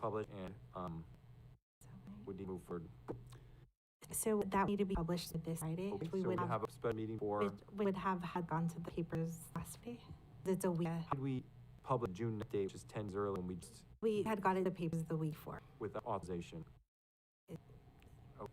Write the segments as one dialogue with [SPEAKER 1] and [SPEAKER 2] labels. [SPEAKER 1] published and, um, would need to move forward.
[SPEAKER 2] So would that need to be published this Friday.
[SPEAKER 1] Okay,
[SPEAKER 2] We
[SPEAKER 1] so we
[SPEAKER 2] would have,
[SPEAKER 1] have a special meeting for,
[SPEAKER 2] we would have had gone to the papers last Friday. It's a week.
[SPEAKER 1] how did we publish June ninth date, which is ten zero, and we just,
[SPEAKER 2] We had gotten the papers the week before.
[SPEAKER 1] with authorization? Oh.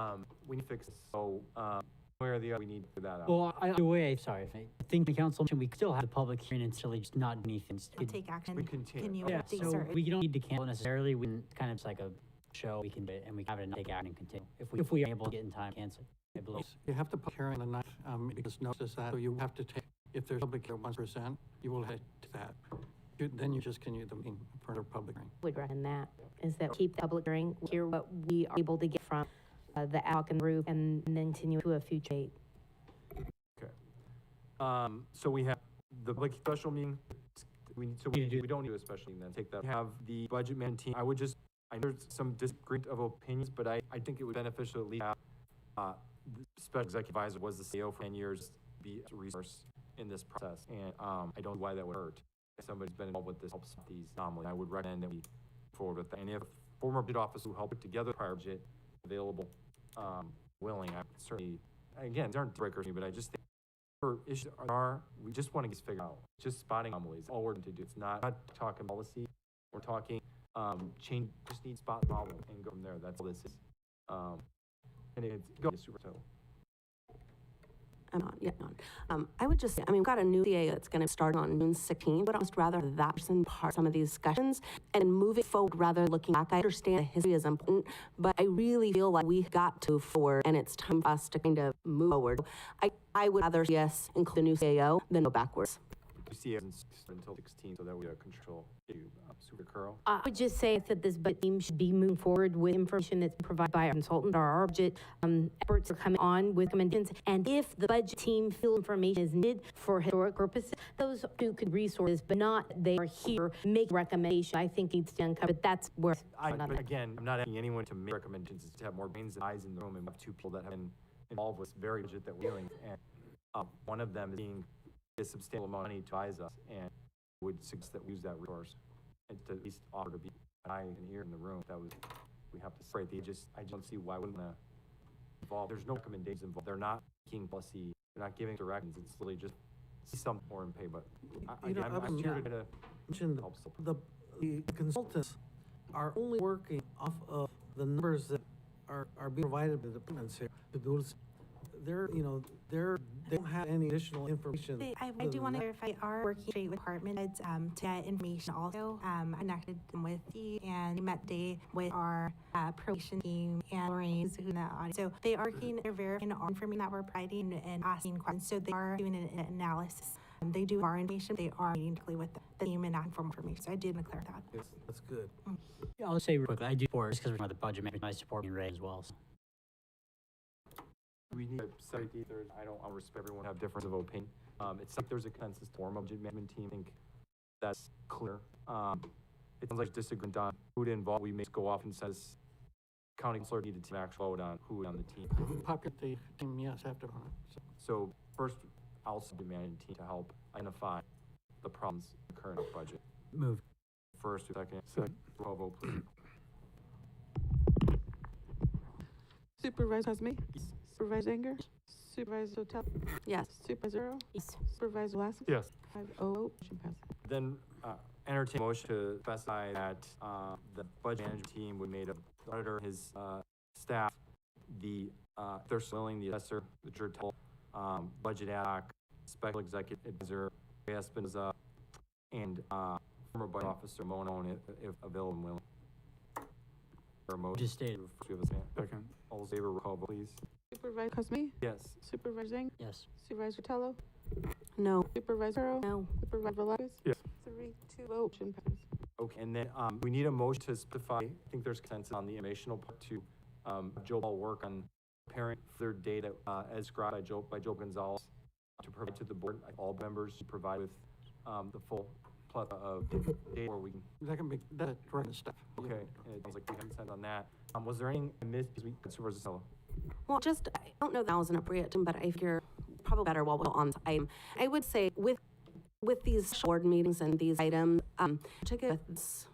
[SPEAKER 1] Um, we need to fix, this, so, um, where the, other we need to figure that out.
[SPEAKER 3] Well, I, either way, sorry, if I I think the council, mentioned we still have the public hearing and still just not do anything. It's-
[SPEAKER 2] I'll
[SPEAKER 3] it-
[SPEAKER 2] take action.
[SPEAKER 1] We continue.
[SPEAKER 2] Continue.
[SPEAKER 3] Yeah,
[SPEAKER 2] These
[SPEAKER 3] so
[SPEAKER 2] are-
[SPEAKER 3] we don't need to cancel necessarily, we can kind of, it's like a show, we can, do it and we have it and take action and continue. If we, if we are able to get in time, cancel. it. I believe.
[SPEAKER 4] You have to public hearing on the night, um, because notice that, so you have to take, if there's public hearing one percent, you will head to that. You- Then you just continue the meeting for another public hearing.
[SPEAKER 5] would recommend that, is that keep the public hearing, hear what we are able to get from uh, the ALC and group, and then continue to a future date.
[SPEAKER 1] Um, so we have the public special meeting, we need, so we, we don't need a special meeting then, take that. We have the budget man team, I would just, I know there's some disagreement of opinions, but I, I think it would beneficial at least have, uh, the special executive advisor was the CEO for ten years, be a resource in this process, and, um, I don't know why that would hurt. If somebody's been involved with this, helps with these anomalies, I would recommend that we forward with that, and if former budget officer who helped put together the prior budget available, um, willing, I certainly, again, they aren't breakers, but I just think for issues that are, we just want to get this figured out, just spotting anomalies, all we're going to do, it's not, not talking policy, we're talking, um, change, just need to spot the problem and go from there, that's all this is. Um, and it's, go, super, so,
[SPEAKER 6] I'm not yet on. Um, I would just say, I mean, we've got a new CA that's going to start on June 16, but I'd just rather that person part some of these discussions and moving forward rather than looking back. I understand the history is important, but I really feel like we got to forward and it's time for us to kind of move forward. I, I would rather, see us include the new CAO than go backwards.
[SPEAKER 1] you see, it until sixteen, so that we have control, issue. Uh, super curl.
[SPEAKER 5] I would just say that this budget team should be moving forward with information that's provided by our consultant or our budget um, experts are coming on with recommendations. And if the budget team feel information is needed for historic purposes, those two could resources, but not they are here make recommendations. I think it's uncovered. That's where
[SPEAKER 1] I,
[SPEAKER 5] not
[SPEAKER 1] but again, I'm not asking anyone to make recommendations, it's to have more brains and eyes in the room, and we have two people that have been involved with this very budget that we're doing, and, um, one of them is being a substantial amount of money to advise us, and would suggest that we use that resource, and to at least offer to be an eye and ear in the room, that was, we have to separate, they just, I just don't see why wouldn't wanna involve, there's no recommendations involved, they're not making policy, they're not giving directions, it's literally just see some form and pay, but I,
[SPEAKER 7] You know,
[SPEAKER 1] again, I'm, I'm
[SPEAKER 7] I'm-
[SPEAKER 1] here to, to
[SPEAKER 7] mentioned
[SPEAKER 1] help support.
[SPEAKER 7] the, the consultants are only working off of the numbers that are, are being provided by the departments here. to do this. They're, you know, they're, they don't have any additional information.
[SPEAKER 2] They- I, I
[SPEAKER 7] other
[SPEAKER 2] do
[SPEAKER 7] than
[SPEAKER 2] want to
[SPEAKER 7] that.
[SPEAKER 2] clarify, our working straight with department heads, um, to get information also. Um, I connected them with Steve and we met today with our, uh, probation team and Lorraine, who's in the audience. So they are working, they're verifying our information that we're providing and asking questions. So they are doing an an analysis. Um, they do our information, they are meeting directly with the team and asking for more information. So I did want to clarify that.
[SPEAKER 7] Yes, That's good.
[SPEAKER 3] Yeah, I'll say real quickly, I do support, just because we're talking about the budget, maybe I support being raised as well. so.
[SPEAKER 1] we need to separate the there's, I don't, I respect everyone have difference of opinion. Um, it's like there's a consensus to form of budget management team, I think that's clear. Um, it sounds like disagreement on who to involve, we may just go off and says, county councilor needed to actually vote on who on the team.
[SPEAKER 4] Populate the team, yes, after, on it. So
[SPEAKER 1] So first, I'll also demand a team to help identify the problems in the current budget.
[SPEAKER 3] Move.
[SPEAKER 1] First, second, second, roll vote, please.
[SPEAKER 8] Supervisor Cosme,
[SPEAKER 1] Yes.
[SPEAKER 8] Supervisor Anger, Supervisor Hotel,
[SPEAKER 6] Yes.
[SPEAKER 8] Supervisor Earl,
[SPEAKER 5] Yes.
[SPEAKER 8] Supervisor Lassiter.
[SPEAKER 1] Yes.
[SPEAKER 8] Five oh, motion passes.
[SPEAKER 1] Then uh, entertain a motion to specify that uh, the budget management team would made of the auditor, his uh, staff, the, uh, if they're selling the assessor, the Jertel, um, budget ad hoc, special executive advisor, Ray Espinoza, and uh, former budget officer Monon, if- if available and willing. Or motion.
[SPEAKER 3] Just stated,
[SPEAKER 1] Do we have a second? All those in favor, roll call, vote, please.
[SPEAKER 8] Supervisor Cosme,
[SPEAKER 1] Yes.
[SPEAKER 8] Supervisor Anger,
[SPEAKER 3] yes.
[SPEAKER 8] Supervisor Tello,
[SPEAKER 6] No.
[SPEAKER 8] Supervisor Earl,
[SPEAKER 6] No.
[SPEAKER 8] Supervisor Velazquez.
[SPEAKER 1] Yes.
[SPEAKER 8] Three, two, oh, motion passes.
[SPEAKER 1] Okay, and then, um, we need a motion to specify, I think there's consensus on the informational part to, um, Joe Ball work on parent third data, uh, as described by Joe, by Joe Gonzalez, to provide to the board, like, all members to provide with, um, the full plethora of data where we can,
[SPEAKER 4] That can be, that's direct to staff.
[SPEAKER 1] okay, and it sounds like we have consensus on that. Um, was there any, I missed, because we, Supervisor Sella?
[SPEAKER 6] Well, just, I don't know that that was an appropriate term, but I figure probably better while we're on the item. I would say with, with these board meetings and these items, um, particularly with this